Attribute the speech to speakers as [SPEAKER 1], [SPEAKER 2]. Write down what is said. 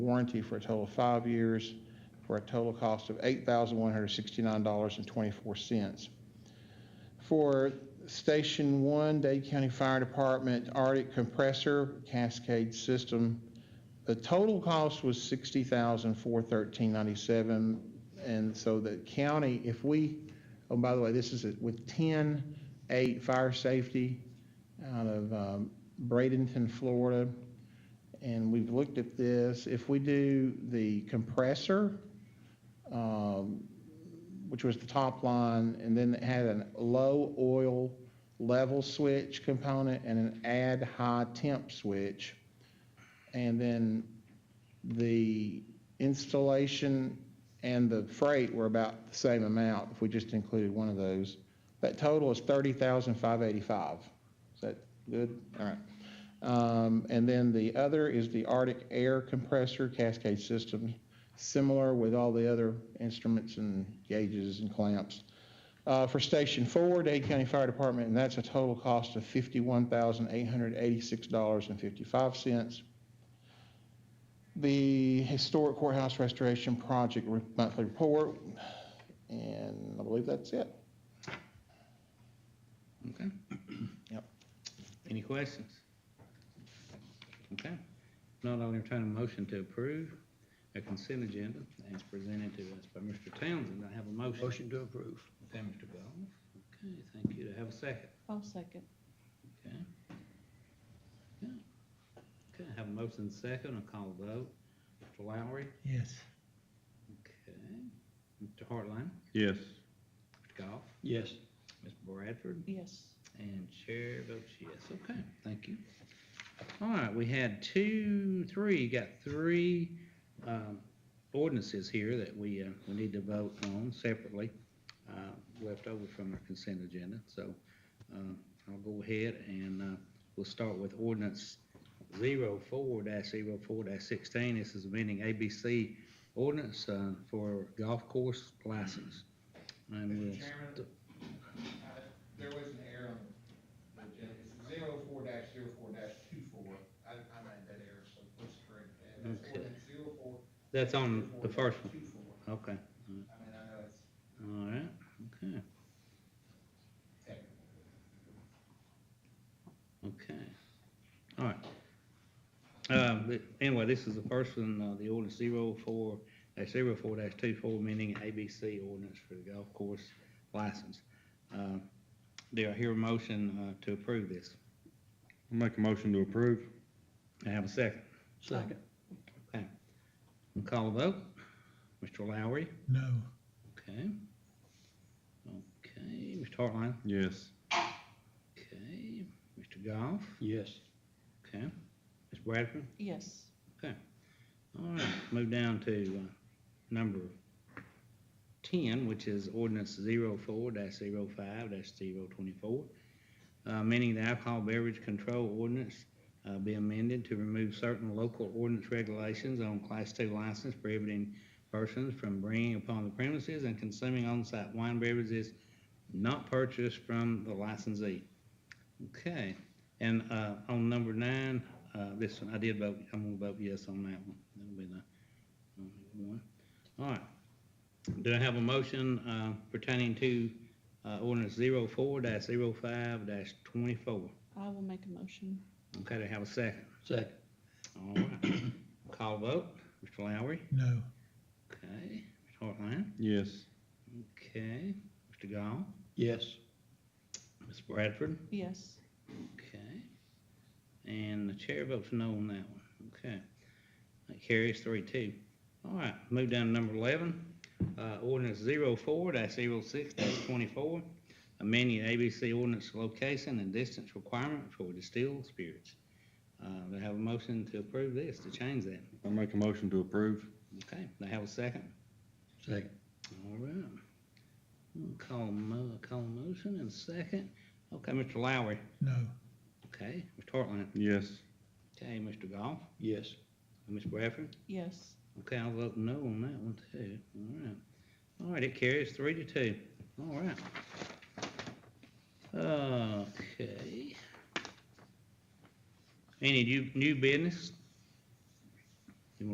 [SPEAKER 1] warranty for a total of five years for a total cost of $8,169.24. For Station 1, Dade County Fire Department Arctic Compressor Cascade System, the total cost was $60,413.97. And so the county, if we, oh, by the way, this is with 10, 8 Fire Safety out of um, Bradenton, Florida. And we've looked at this. If we do the compressor, um, which was the top line, and then it had a low oil level switch component and an add high temp switch. And then the installation and the freight were about the same amount if we just included one of those. That total is thirty thousand five eighty-five. Is that good? All right. Um, and then the other is the Arctic Air Compressor Cascade System, similar with all the other instruments and gauges and clamps. Uh, for Station Four, Dade County Fire Department, and that's a total cost of fifty-one thousand eight hundred eighty-six dollars and fifty-five cents. The Historic Courthouse Restoration Project re- monthly report, and I believe that's it.
[SPEAKER 2] Okay.
[SPEAKER 1] Yep.
[SPEAKER 2] Any questions? Okay. If Not I'll entertain a motion to approve a consent agenda as presented to us by Mr. Townsend. I have a motion.
[SPEAKER 3] Motion to approve.
[SPEAKER 2] Okay, Mr. Goff. Okay, thank you. To have a second.
[SPEAKER 4] I'll second.
[SPEAKER 2] Okay. Okay. Okay, I have a motion and second. I'll call the vote. Mr. Lowry.
[SPEAKER 3] Yes.
[SPEAKER 2] Okay. Mr. Hartline.
[SPEAKER 5] Yes.
[SPEAKER 2] Mr. Goff.
[SPEAKER 3] Yes.
[SPEAKER 2] Ms. Bradford.
[SPEAKER 4] Yes.
[SPEAKER 2] And chair votes yes. Okay, thank you. All right, we had two, three, got three um, ordinances here that we, uh, we need to vote on separately, uh, left over from our consent agenda. So uh, I'll go ahead and uh, we'll start with ordinance 04-04-16. This is amending ABC ordinance uh, for golf course license. And we'll.
[SPEAKER 1] Mr. Chairman? uh,
[SPEAKER 2] st-
[SPEAKER 1] There was an error on the agenda, it's zero four dash zero four dash two four, I, I made that error, so please correct that. That's
[SPEAKER 2] Okay.
[SPEAKER 1] ordinance zero four.
[SPEAKER 2] That's on Um, the first one.
[SPEAKER 1] Two four,
[SPEAKER 2] Okay,
[SPEAKER 1] I mean, I know it's
[SPEAKER 2] all right, okay,
[SPEAKER 1] technical.
[SPEAKER 2] okay, all right. Uh, but anyway, this is the first one, uh, the ordinance zero four, dash zero four dash two four, meaning ABC ordinance for the golf course license. Uh, Do I hear a motion, uh, to approve this?
[SPEAKER 5] I Make a motion to approve?
[SPEAKER 2] I have a second.
[SPEAKER 3] Second.
[SPEAKER 2] We'll Call a vote. Mr. Lowry?
[SPEAKER 3] No.
[SPEAKER 2] Okay. Okay, Mr. Hartline?
[SPEAKER 5] Yes.
[SPEAKER 2] Okay, Mr. Goff?
[SPEAKER 3] Yes.
[SPEAKER 2] Okay, Ms. Bradford?
[SPEAKER 4] Yes.
[SPEAKER 2] All right, move down to uh, number 10, which is ordinance 04-05-024, uh, meaning the alcohol beverage control ordinance uh, be amended to remove certain local ordinance regulations on Class 2 license prohibiting persons from bringing upon the premises and consuming on-site wine beverages not purchased from the licensee. Okay, and uh, on number nine, uh, this one, I did vote, I'm gonna vote yes on that one. That'll be the only one. All right. Do I have a motion uh, pertaining to uh, ordinance 04-05-24?
[SPEAKER 4] I will make a motion.
[SPEAKER 2] Okay, do I have a second?
[SPEAKER 3] Second.
[SPEAKER 2] All right. Call vote. Mr. Lowry?
[SPEAKER 3] No.
[SPEAKER 2] Okay. Mr. Hartline?
[SPEAKER 5] Yes.
[SPEAKER 2] Okay. Mr. Gall?
[SPEAKER 3] Yes.
[SPEAKER 2] Ms. Bradford?
[SPEAKER 4] Yes.
[SPEAKER 2] Okay. And the chair votes no on that one. Okay. That carries three two. All right, move down to number eleven, uh, ordinance zero four dash zero six dash twenty-four. Amending ABC ordinance location and distance requirement for distilled spirits. Uh, they have a motion to approve this, to change that.
[SPEAKER 5] I make a motion to approve?
[SPEAKER 2] Okay, they have a second.
[SPEAKER 3] Second.
[SPEAKER 2] All right. We'll Call a mo- call a motion and second. Okay, Mr. Lowry.
[SPEAKER 3] No.
[SPEAKER 2] Okay, Mr. Hartline.
[SPEAKER 5] Yes.
[SPEAKER 2] Okay, Mr. Goff.
[SPEAKER 3] Yes.
[SPEAKER 2] Ms. Bradford?
[SPEAKER 4] Yes.
[SPEAKER 2] Okay, I'll vote no on that one too. All right. All right, it carries three to two. All right. Okay. Any new, new business?